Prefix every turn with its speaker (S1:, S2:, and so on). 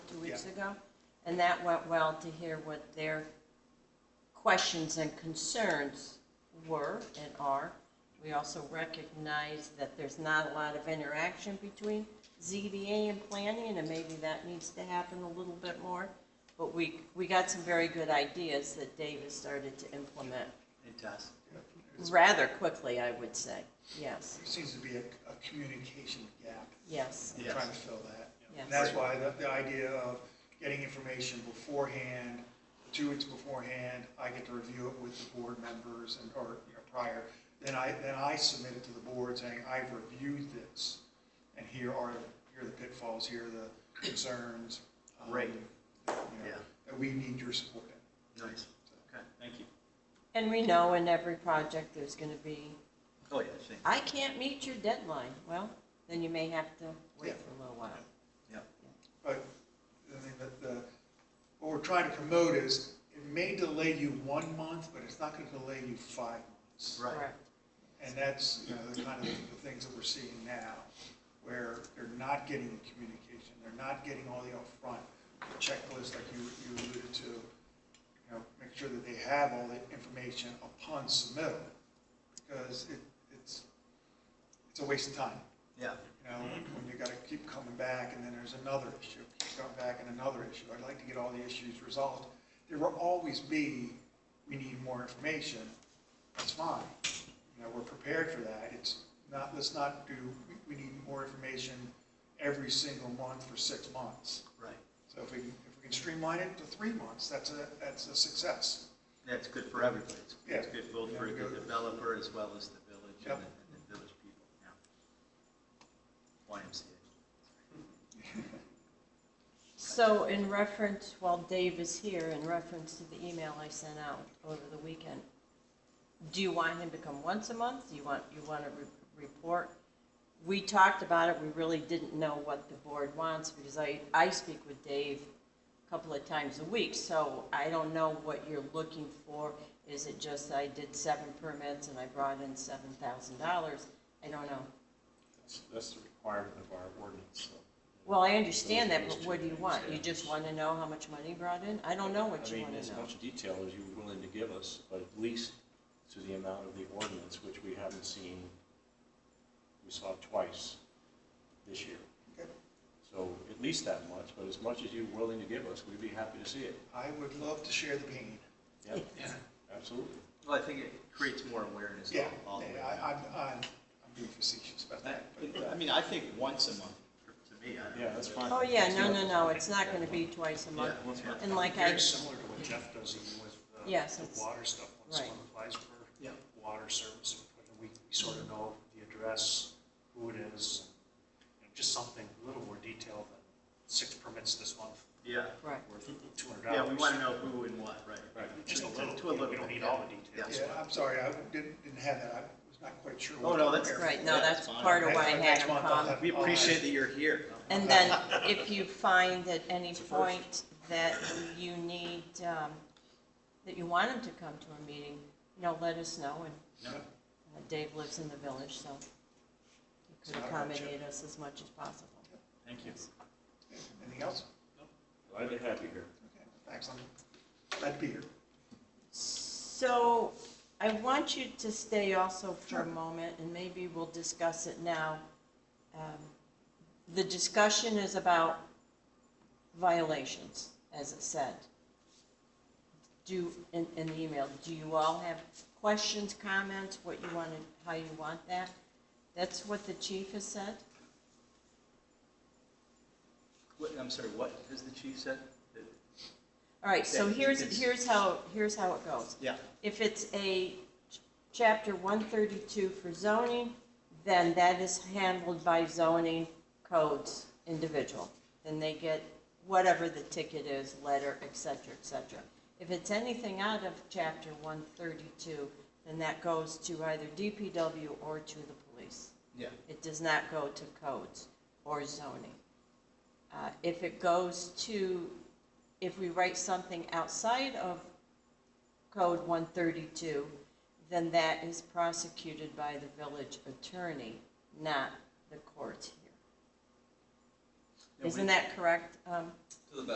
S1: ago, and that went well to hear what their questions and concerns were and are. We also recognize that there's not a lot of interaction between ZBA and planning, and maybe that needs to happen a little bit more. But we, we got some very good ideas that Dave has started to implement
S2: Fantastic.
S1: rather quickly, I would say. Yes,
S3: There seems to be a, a communication gap.
S1: yes,
S3: I'm
S2: Yes.
S3: trying to fill that.
S1: Yes.
S3: And that's why the, the idea of getting information beforehand, two weeks beforehand, I get to review it with the board members and, or, you know, prior. Then I, then I submit it to the board saying, I've reviewed this, and here are, here are the pitfalls, here are the concerns. um,
S2: Right.
S3: that, you know,
S2: Yeah.
S3: That we need your support in.
S2: Nice. Okay, thank you.
S1: And we know in every project, there's going to be,
S2: Oh, yeah, I think,
S1: I can't meet your deadline. Well, then you may have to wait
S3: Yeah.
S1: for a little while.
S2: yeah.
S3: But, I mean, the, the, what we're trying to promote is, it may delay you one month, but it's not gonna delay you five months.
S2: Right,
S1: Correct.
S3: And that's, you know, the kind of the things that we're seeing now, where they're not getting the communication, they're not getting all the upfront, the checklist like you, you alluded to, you know, make sure that they have all the information upon submittal, because it, it's, it's a waste of time.
S2: yeah.
S3: You know, when you gotta keep coming back, and then there's another issue, keep coming back and another issue, I'd like to get all the issues resolved. There will always be, we need more information, that's fine, you know, we're prepared for that, it's not, let's not do, we- we need more information every single month for six months.
S2: Right.
S3: So if we, can- if we can streamline it to three months, that's a, that's a success.
S2: Yeah, it's good for everybody. It's- It's
S3: Yeah.
S2: good both for the developer as well as the village and the,
S3: Yep.
S2: and the village people, yeah. YMCA.
S1: So in reference, while Dave is here, in reference to the email I sent out over the weekend, do you want him to come once a month? Do you want, you want to re- report? We talked about it, we really didn't know what the board wants, because I, I speak with Dave a couple of times a week, so I don't know what you're looking for. Is it just I did seven permits and I brought in seven thousand dollars? I don't know.
S4: That's- That's the requirement of our ordinance, so.
S1: Well, I understand that, but what do you want? You just want to know how much money you brought in? I don't know what you
S4: I
S1: want
S4: mean,
S1: to
S4: as
S1: know.
S4: much detail as you're willing to give us, but at least to the amount of the ordinance, which we haven't seen, we saw twice this year.
S3: Okay.
S4: So at least that much, but as much as you're willing to give us, we'd be happy to see it.
S3: I would love to share the pain.
S4: Yeah, absolutely.
S2: Well, I think it creates more awareness
S3: Yeah,
S2: all all the way.
S3: yeah, I, I'm, I'm I'm being facetious about
S2: I,
S3: that, but.
S2: I mean, I think once a month, to me, I don't know.
S4: Yeah, that's fine.
S1: Oh, yeah, no, no, no, it's not going to be twice a month.
S2: Yeah, once a month.
S1: And like I,
S5: Very similar to what Jeff does even with uh,
S1: Yes,
S5: the
S1: it's-
S5: water stuff. When
S1: right.
S5: someone applies for
S2: Yeah.
S5: water service, and we we sort of know the address, who it is, and you know, just something a little more detailed than six permits this month
S2: Yeah,
S1: right,
S5: worth two hundred dollars.
S2: yeah, we want to know who and what, right.
S4: Right.
S5: Just a
S2: To-
S5: little,
S2: to a
S5: you know, we
S2: little
S5: don't
S2: bit,
S5: need all
S2: yeah.
S5: the details.
S3: Yeah, I'm sorry, I didn't, didn't have that, I was not quite sure.
S2: Oh,
S3: what
S2: no,
S3: to
S2: that's-
S3: prepare.
S1: right, no,
S2: Yeah,
S1: that's
S2: it's fine.
S1: part of why I
S3: Next
S1: had him
S3: month I'll
S1: come.
S3: have-
S2: We
S3: I'll have-
S2: appreciate that you're here.
S1: And then if you find at any point that you need, um, that you want him to come to a meeting, you know, let us know, and
S2: No,
S1: uh, Dave lives in the village, so he
S3: It's
S1: could
S3: not a hardship.
S1: accommodate us as much as possible.
S2: Thank you.
S3: Anything else?
S4: Glad to have you here.
S3: Okay, Thanks, I'm glad to be here.
S1: So I want you to stay also for a moment, and maybe we'll discuss it now. Um, The discussion is about violations, as it said. Do, in, in the email, do you all have questions, comments, what you want, to- how you want that? That's what the chief has said?
S2: What, I'm sorry, what has the chief said? That-
S1: All right, so
S2: Yeah,
S1: here's,
S2: it's-
S1: here's how, here's how it goes.
S2: Yeah,
S1: If it's a ch- chapter one thirty-two for zoning, then that is handled by zoning codes individual. Then they get whatever the ticket is, letter, et cetera, et cetera. If it's anything out of chapter one thirty-two, then that goes to either DPW or to the police.
S2: yeah,
S1: It does not go to codes or zoning. Uh, If it goes to, if we write something outside of Code 132, then that is prosecuted by the village attorney, not the courts here.
S2: Yeah, we-
S1: Isn't that correct, um,